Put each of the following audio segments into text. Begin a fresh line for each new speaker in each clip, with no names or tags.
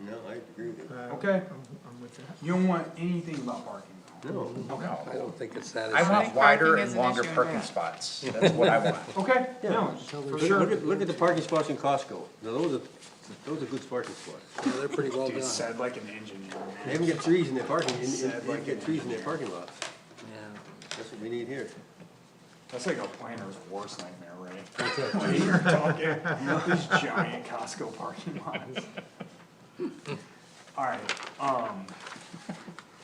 No, I agree with you.
Okay.
Uh, I'm, I'm with that.
You don't want anything about parking though.
No,
No,
I don't think it's
I
satisfactory.
want
think
wider
parking is
and
an
longer
issue in
parking
that.
spots, that's what I want.
Okay, no, for
look, look
sure.
at, look at the parking spots in Costco, now those are, those are good parking spots.
They're pretty well
Dude,
done.
said like an engineer.
They even get trees in their parking, in, in, they get trees in their parking lots,
Yeah.
that's what we need here.
That's like a planner's worst nightmare, right? When you're talking, these giant Costco parking lots. Alright, um,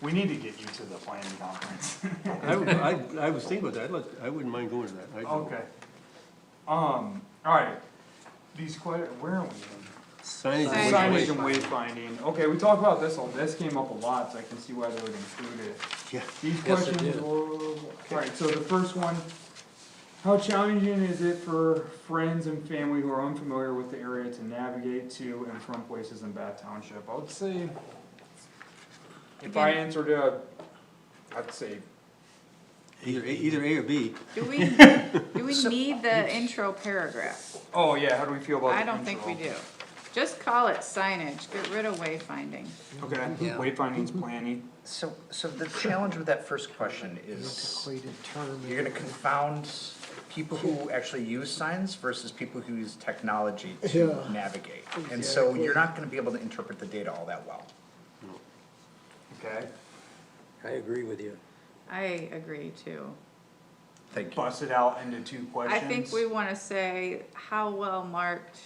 we need to get you to the planning conference.
I, would- I, I was thinking about that, I'd like, I wouldn't mind going to that. I do.
Okay. Um, alright, these que- where are we in?
Signage. and
Signage
wayfinding.
and wayfinding, okay, we talked about this, all. this came up a lot, so I can see why they would include it.
Yeah.
These
Yes, it
questions
did.
were, alright, so the first one, how challenging is it for friends and family who are unfamiliar with the area to navigate to and from places in Bath Township? I would say, if I
Again.
answered a, I'd say,
Either, A- either A or B,
Do we, do we need the intro paragraph?
oh yeah, how do we feel about
I
the
don't think we
intro?
do. Just call it signage, get rid of wayfinding.
Okay, wayfinding's planning,
So, so the challenge with that first question is,
Antiquated term.
you're gonna confound people who actually use signs versus people who use technology to
Yeah.
navigate. And so you're not gonna be able to interpret the data all that well.
okay,
I agree with you.
I agree too.
Thank you.
bust it out into two
I
questions.
think we wanna say, how well marked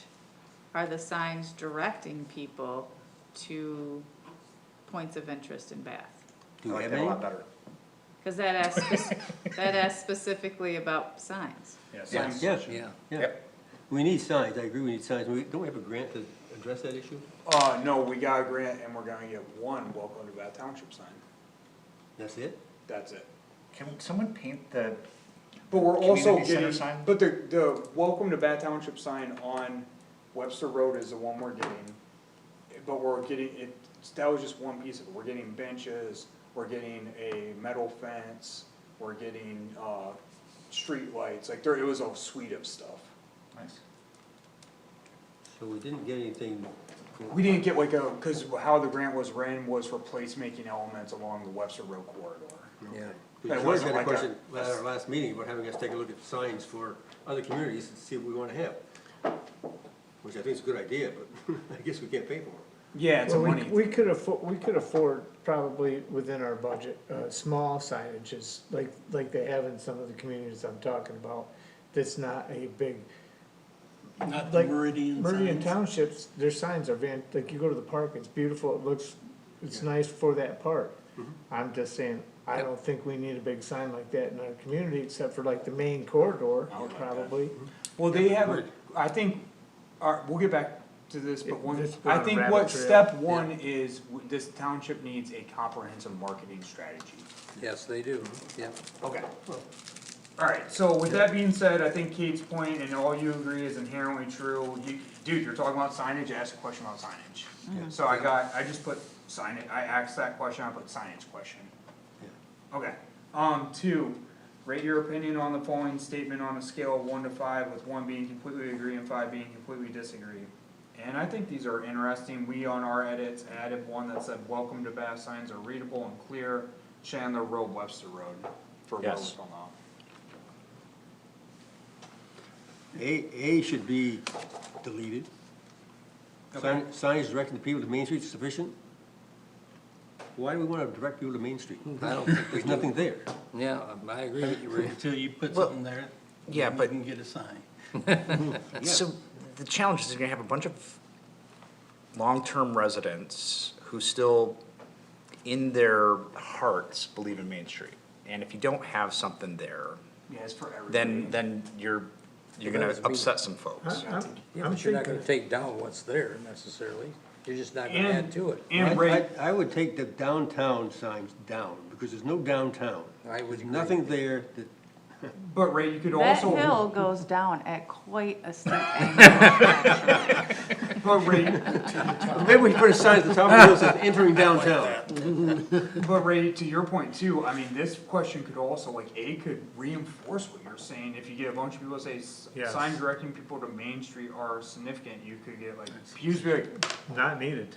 are the signs directing people to points of interest in Bath?
I
do you
like
have
that a
any?
lot better.
Cause that asks, spec- that asks specifically about signs.
Yes, yes,
Yeah.
yeah,
Yep.
we need signs, I agree, we need signs, we, don't we have a grant to address that issue?
Uh, no, we got a grant and we're gonna get one welcome to Bath Township sign,
That's it?
that's it.
Can someone paint the,
But we're also
Community center
getting,
sign?
but the, the welcome to Bath Township sign on Webster Road is the one we're getting. But we're getting, it, that was just one piece of it, we're getting benches, we're getting a metal fence, we're getting, uh, streetlights, like there, it was a suite of stuff.
nice.
So we didn't get anything.
We didn't get like a, cause how the grant was ran was for placemaking elements along the Webster Road corridor.
Yeah.
That
George had
wasn't
a
like a-
question at our last meeting about having us take a look at signs for other communities and see what we wanna have. Which I think is a good idea, but I guess we can't pay for it.
Yeah, it's a
Well, we-
money thing.
We could afford, we could afford probably within our budget, uh, small signages, like, like they have in some of the communities I'm talking about. That's not a big,
Not
like,
Meridian
Meridian townships, their signs are van, like you go to the park, it's beautiful, it looks, it's nice for that park. I'm just saying, I don't think we need a big sign like that in our community, except for like the main corridor,
I would like that.
probably.
Well, they have, a-
Word.
I think, all right, we'll get back to this, but one,
Let's go
I
on a
think
rabbit
what
trail.
step one is, w- this township needs a comprehensive marketing strategy.
Yes, they do, yeah.
Okay. Alright, so with that being said, I think Kate's point and all you agree is inherently true, you, dude, you're talking about signage, ask a question about signage. So I got, I just put signage, I asked that question, I put signage question. Okay, um, two, rate your opinion on the following statement on a scale of one to five, with one being completely agree and five being completely disagree. And I think these are interesting, we on our edits added one that said, welcome to Bath signs are readable and clear, Chandler Road, Webster Road, for where we're
Yes.
from now.
A, A should be deleted. Sign, signs directing people to Main Street is sufficient? Why do we wanna direct people to Main Street?
I don't think we
There's
do.
nothing there.
Yeah, um, I agree with you, Rick.
Until you put
Well,
something there.
yeah,
then
but-
You can get a sign.
So the challenge is you're gonna have a bunch of long-term residents who still, in their hearts, believe in Main Street. And if you don't have something there,
Yeah, it's for everybody.
then, then you're,
Well,
you're gonna
that was me.
upset some folks.
I- I'm-
Yeah,
I'm
but you're not gonna
thinking,
take down what's there necessarily. You're just not gonna
And,
add to it.
and
I- I-
rate,
I would take the downtown signs down, because there's no downtown.
I would
There's
agree.
Nothing there that
but Ray, you could
That
also.
hill goes down at quite a steep angle.
But Ray,
Maybe we can put a sign at the top of the hill that says entering downtown.
But Ray, to your point too, I mean, this question could also, like, A could reinforce what you're saying, if you get a bunch of people to say, "S-
Yes.
sign directing people to Main Street are significant, you could get like, you could be like,
not needed.